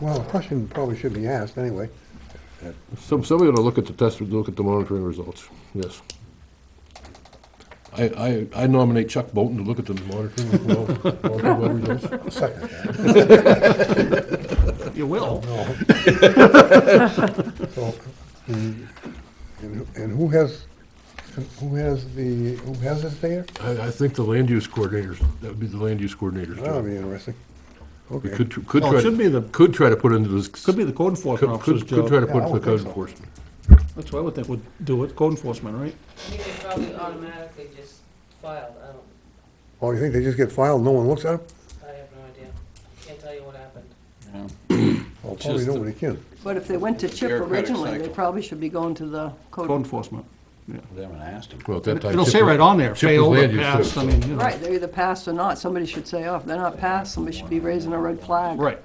Well, a question probably should be asked anyway. Some, somebody ought to look at the test, look at the monitoring results, yes. I, I, I nominate Chuck Bolton to look at the monitoring, well, monitoring well results. I'll second that. You will. So, the- And who- and who has, who has the, who has this there? I, I think the land use coordinators, that would be the land use coordinators. That would be job. interesting. We Okay. could, tr- could No, Oh, it try, should be the- to- could try to put into this. Could be the code could- enforcement officer's Could, could try to job. Yeah, put I into the would code think so. enforcement. That's what I would think would do it, code enforcement, right? You could probably automatically just filed, I don't, Oh, you think they just get filed, no one looks at them? I have no idea. Can't tell you what happened. Well, probably Just the- nobody can. But if they went to CHIP Bureaucratic originally, they cycle. probably should be going to the Code code. enforcement. Them and asked him. Well, at that time. It'll Chip say was- right on there, Chip was failed or land use passed, I service. mean, you know. Right, they're either passed or not. Somebody should say, oh, if they're not passed, somebody should be raising a red flag. Right.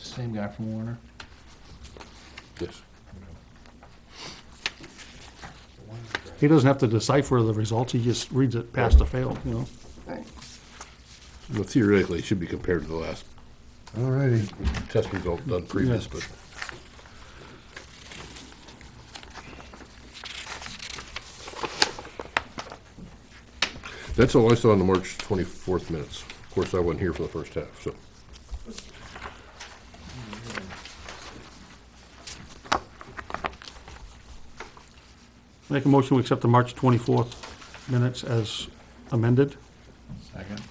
Same guy from Warner. Yes. He doesn't have to decipher the results, he just reads it passed or failed, you know? Right. Well, Theoretically, it should be compared to the last All righty. test result done previous, Yeah. but. That's all I saw in the March 24th minutes. Of course, I wasn't here for the first half, so. Make a motion, we accept the March 24th minutes as amended. Second.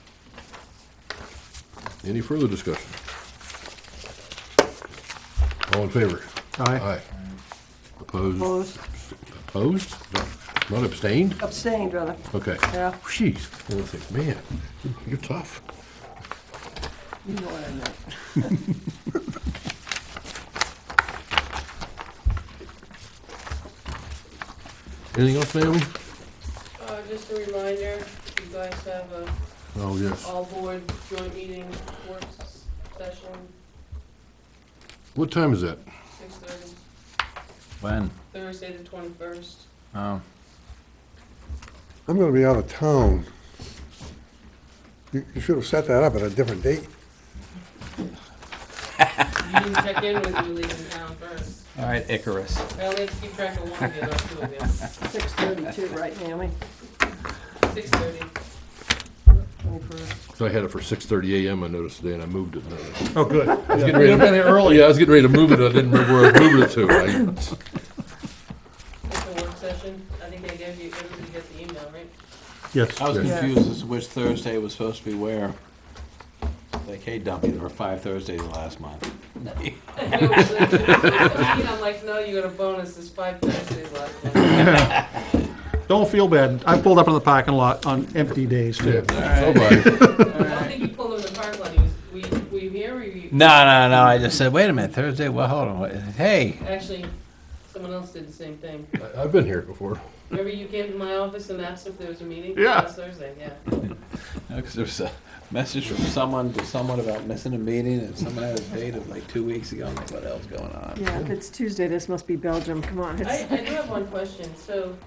Any further discussion? All in favor? Aye. Opposed? Opposed, Opposed? Not abstained? abstained, rather. Okay. Yeah. Jeez, I was like, man, you're tough. You know what I meant. Anything else, Naomi? Uh, just a reminder, you guys have a Oh, yes. all-board joint meeting work s- session, What time is that? six thirty, When? Thursday the twenty-first. Oh, I'm gonna be out of town. You you should have set that up at a different date. You can check in with you leaving town first. all right, Icarus. I only have to keep track of one of you, not two of you. Six thirty-two, right, Naomi? Six thirty. Twenty-first. 'Cause I had it for six thirty AM, I noticed today, and I moved it. and I Oh, good. was getting ready- Yeah, I was getting ready to move it, I didn't remember where I moved it to. It's a work session. I think they gave you, everybody gets the email, right? Yes. I was Yeah. confused as to which Thursday was supposed to be where. Like, hey, dummy, there were five Thursdays last month. I'm like, no, you got a bonus, it's five Thursdays left. Don't feel bad, I pulled up in the parking lot on empty days, I- too. yeah, so bad. I don't think you pulled him in the parking lot, he was, we, we here, or you, No, no, no. I just said, wait a minute, Thursday. Well, hold on. Wait, Hey, actually, someone else did the same thing. I- I've been here before. Remember you came to my office and asked if there was a meeting? Yeah. Last Thursday, yeah. because there was a message from someone to someone about missing a meeting, and someone had a date of like two weeks ago. I'm like, what else going on? Yeah, if it's Tuesday, this must be Belgium, come on. I, it's- I do have one question, so,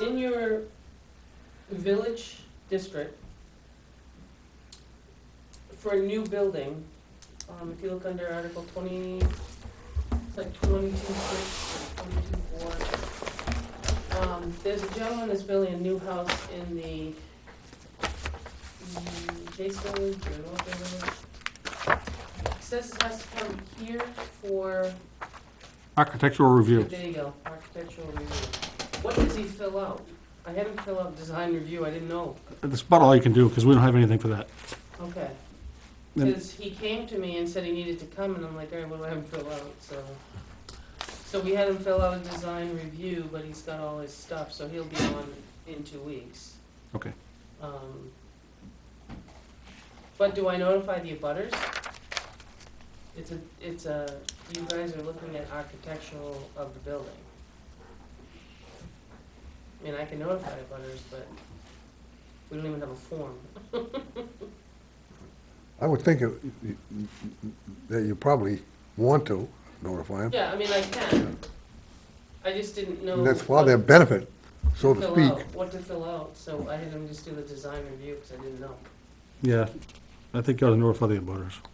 in your village district, for a new building, um, if you look under Article twenty, it's like twenty-two six, twenty-two four. Um, there's a gentleman that's building a new house in the, mm, Jason, Village or North Village. He Says it has to come here for Architectural review. there you go, architectural review. What does he fill out? I had him fill out design review, I didn't know. That's about all you can do, because we don't have anything for that. Okay. Then- Because he came to me and said he needed to come, and I'm like, all right, what do I have him fill out, so. So we had him fill out a design review, but he's got all his stuff, so he'll be on in two weeks. Okay. Um, But do I notify the abutters? It's a, it's a, you guys are looking at architectural of the building. I mean, I can notify abutters, but we don't even have a form. I would think it- that you probably want to notify them. Yeah, I mean, I can. I just didn't know. And That's for what their benefit, so to fill speak. out- What to fill out, so I had them just do the design review, because I didn't know. Yeah, I think you ought to notify the abutters.